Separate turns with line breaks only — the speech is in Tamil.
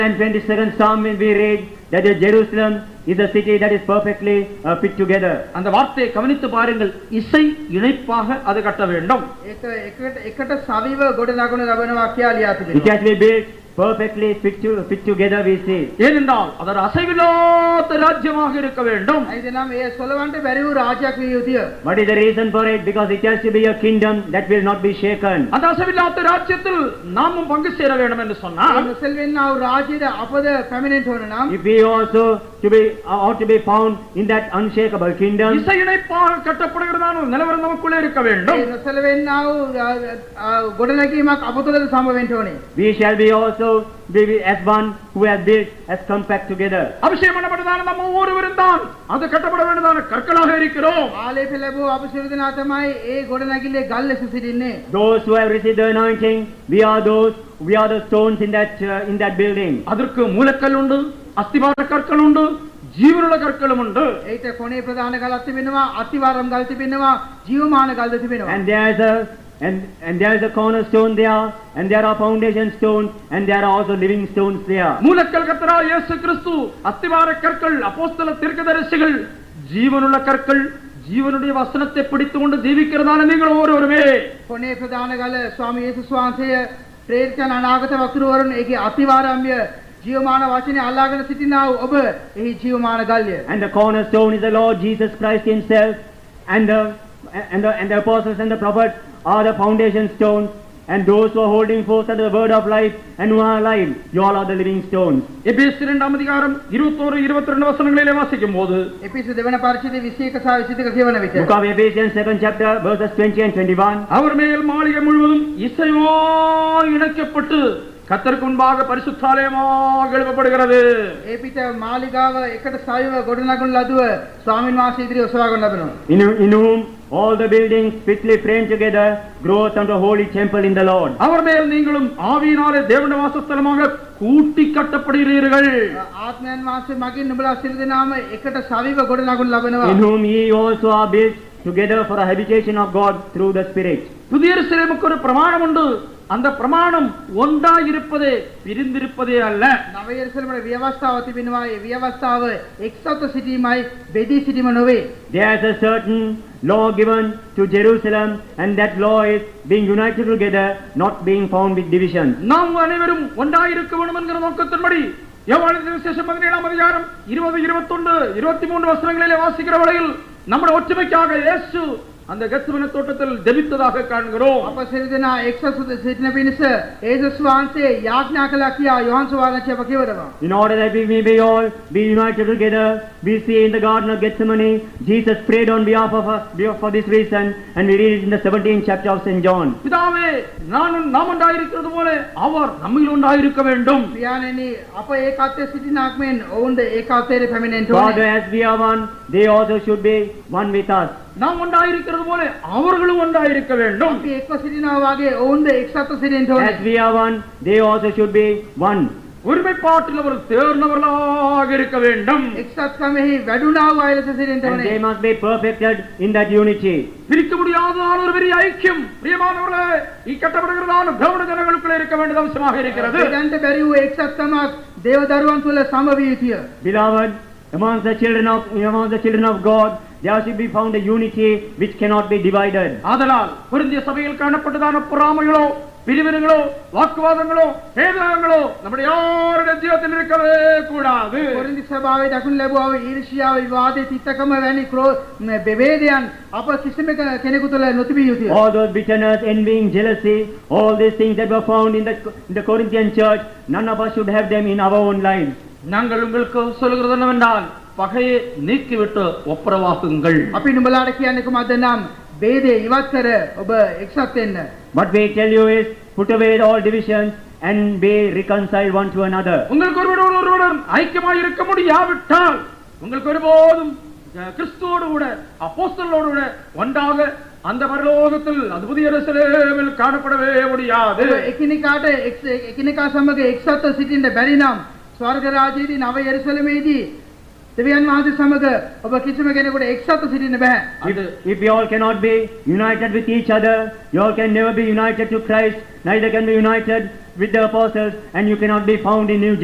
And 22nd Psalm we read that the Jerusalem is a city that is perfectly uh, fit together.
அந்த வார்த்தையை கவனித்து பாருங்கள் இசை இணைப்பாக அது கட்ட வேண்டும்
ඒක එකට එකට සවිව ගොඩනගනු ලබනවා කියලා ලියා
It
තිබෙනවා.
has been built perfectly fit, to, fit together we see.
ஏனென்றால் அது ஒரு அசைவில்லாத ராஜ்யமாக இருக்க வேண்டும்
එයිදනම් ඒ සොලවන්ට බැරි වූ රාජ්‍යයක් විය යුතුය.
What is the reason for it? Because it has to be a kingdom that will not be shaken.
அந்த அசைவில்லாத ராஜ்யத்தில் நாமும் பங்கு சேர வேண்டும் என்று
ඒ
சொன்னால்
මුසල් වෙන්නා වූ රාජ්‍යයට අපද පැමිණෙන්න ඕන නම්
If we also to be, uh, ought to be found in that unshakable kingdom,
இசை இணைப்பாக கட்டப்படுகிறதான ஒரு நிலவரம் நமக்குள்ளே இருக்க வேண்டும்
ඒ නොසල වෙන්නා වූ රා- ආ, ගොඩනැගීමක් අප තුළද සම්භව වෙන්න ඕනේ.
we shall be also be as one who has built as compact together.
அபிஷேகம் பண்ணப்பட்டதான நம்ம ஒவ்வொருவரும் தான் அது கட்டப்பட வேண்டியதான கற்களாக இருக்கிறோம்
ආලේප ලැබූ අප සියලු දෙනා තමයි ඒ ගොඩනැගිල්ලේ ගල් ලෙස සිටින්නේ.
Those who have received the anointing, we are those, we are the stones in that, uh, in that building.
அதற்கு மூலக்கல் உண்டு அஸ்திபார கற்கள் உண்டு ஜீவனுள்ள கற்களும் உண்டு
ඒට කොනේ ප්‍රධාන ගලක් තිබෙනවා, අතිවාරම් ගල් තිබෙනවා, ජීවමාන ගල්ද තිබෙනවා.
And there is a, and, and there is a cornerstone there, and there are foundation stones, and there are also living stones there.
மூலக்கல் கத்தரா இயேசு கிறிஸ்து அஸ்திவார கற்கள் அப்போஸ்தல தீர்க்கதரிசிகள் ஜீவனுள்ள கற்கள் ஜீவனுடைய வசனத்தை பிடித்து கொண்டு ஜீவிக்கிறதான நீங்கள் ஒவ்வொருவருமே
කොනේ ප්‍රධාන ගල ස්වාමී යේසුස් වහන්සේ ප්‍රේරිතයන් අනාගත වතුරවරුන් ඒකේ අතිවාරම්ය ජීවමාන වචනේ අල්ලාගෙන සිටිනා වූ ඔබ එහි ජීවමාන ගල්ය.
And the cornerstone is the Lord Jesus Christ himself, and the, and the, and the apostles and the prophets are the foundation stones, and those who are holding forth to the word of life and who are alive, you all are the living stones.
எபேசு இரண்டாம் அதிகாரம் இருபத்தோரு இருபத்தி ரெண்டு வசனங்களிலே வாசிக்கும் போது
එපිසු දෙවන පරිච්ඡේදයේ 21 සහ 22 කියවන
Book
විට
of Ephesians, second chapter, verses twenty and twenty-one.
அவர் மேல் மாளிகை முழுவதும் இசையோ இணைக்கப்பட்டு கத்தருக்கு முன்பாக பரிசுத்தாலயமாக எழுப்பப்படுகிறது
ඒ පිට මාලිගාව එකට සයව ගොඩනගන ලදුව ස්වාමින් වහන්සේ ඉදිරියේ ඔසවාගෙන ලබනවා.
In, in whom all the buildings fitly framed together groweth unto a holy temple in the Lord.
அவர் மேல் நீங்களும் ஆவியினாலே தேவன வாசஸ்தலமாக கூட்டி கட்டப்படுகிறீர்கள்
ආත්මයන් වහන්සේ මගින් නුඹලා සිල් දෙනාම එකට සවිව ගොඩනගන
In
ලබනවා.
whom ye also are built together for a habitation of God through the Spirit.
புதிய சிலைமுக்கு ஒரு பிரமாணம் உண்டு அந்த பிரமாணம் ஒன்றாய் இருப்பதே பிரிந்திருப்பதே அல்ல
නව යෙරුසලමට ව්‍යවස්ථාව තිබෙනවා. ඒ ව්‍යවස්ථාව එක්සත්ව සිටීමයි බෙදී සිටීම නොවේ.
There is a certain law given to Jerusalem, and that law is being united together, not being found with division.
நாம் அனைவரும் ஒன்றாய் இருக்க வேண்டும் என்கிற நோக்கத்தின்படி யோவானின் விசேஷம் பதினேழாம் அதிகாரம் இருபது இருபத்தொன்று இருபத்தி மூன்று வசனங்களிலே வாசிக்கிற வகையில் நம்முடைய ஒற்றுமைக்காக இயேசு அந்த கெத்சமனே தோட்டத்தில் ஜெபித்ததாக காண்கிறோம்
අප සිරිදනා එක්සසුද සිටින පිණිස ඒසුස් වහන්සේ යාඥා කළා කියා යොහන්ස වහන්සේ කියවනවා.
In order that we may be all be united together, we see in the Garden of Gethsemane, Jesus prayed on behalf of us behalf- for this reason, and we read it in the 17th chapter of St. John.
பிதாவே நான் உன்- நாம் ஒன்றாயிருக்கிறது போல அவர் நம்மில் ஒன்றாயிருக்க வேண்டும்
පියාණෙනි අප ඒකාත්වයේ සිටිනාක් මෙන් ඔවුන්ද ඒකාත්වයේ පැමිණෙන්න
Father,
ඕනේ.
as we are one, they also should be one with us.
நாம் ஒன்றாயிருக்கிறது போல அவர்களும் ஒன்றாயிருக்க வேண்டும்
අපි එක්ව සිටිනා වාගේ ඔවුන්ද එක්සත්ව සිටින්න
As
ඕනේ.
we are one, they also should be one.
ஒருமைப்பாட்டில் அவர்கள் தேர்ந்தவர்களாக இருக்க வேண்டும்
එක්සත්කමෙහි වැඩුණා වූ අය ලෙස සිටින්න
And they
ඕනේ.
must be perfected in that unity.
பிரிக்க முடியாததான ஒரு பெரிய ஐக்கியம் பிரியமானவர்களே இக்கட்டப்படுகிறதான தேவன ஜனங்களுக்குள்ள இருக்க வேண்டியது அவசியமாக இருக்கிறது
දෙදන්ට බැරි වූ එක්සත්කමක් දේව දරුවන් තුළ සමවිය යුතුය.
Beloved, amongst the children of, among the children of God, there should be found a unity which cannot be divided.
ஆதலால் பொருந்திய சபையில் காணப்பட்டதான பொறாமைகளோ பிரிவினங்களோ வாக்குவாதங்களோ பேதங்களோ நம்முடைய யாருடைய ஜீவத்தில் இருக்கவே கூடாது
කොරින්ති සභාවේ දක්වන ලැබුවා වූ ඊර්ෂ්‍යාව, විවාදයේ තිත්තකම වැනි ක්‍රෝ බෙවේදයන් අප කිසිම කෙනෙකු තුළ නොතිබිය යුතුය.
All those bitterness, envying, jealousy, all these things that were found in the, in the Corinthian church, none of us should have them in our own lives.
நாங்கள் உங்களுக்கு சொல்கிறது என்னவென்றால் பகையை நீக்கிவிட்டு ஒப்புரவாகுங்கள்
අපි නුඹලාට කියන්නේ කුමක්ද නම් ભેදේ ඉවත් කර ඔබ එක්සත් වෙන්න.
What we tell you is, put away all divisions and be reconciled one to another.
உங்களுக்கு ஒருவரோடு ஒருவருடன் ஐக்கியமாய் இருக்க முடியாவிட்டால் உங்களுக்கு ஒருபோதும் அஹ், கிறிஸ்துவோடு கூட அப்போஸ்தலோடு கூட ஒன்றாக அந்த பரலோகத்தில் அது புதிய எருசலேமில் காணப்படவே முடியாது
ඔබ එකිනෙකාට එක්ස- එකිනෙකා සමග එක්සත්ව සිටින්න බැරි නම් ස්වර්ග රාජ්‍යයේදී නව යෙරුසලමේදී දෙවියන් වහන්සේ සමග ඔබ කිසිම කෙනෙකුට එක්සත්ව සිටින්න බෑ.
அது
If, if we all cannot be united with each other, you all can never be united to Christ, neither can be united with the apostles, and you cannot be found in New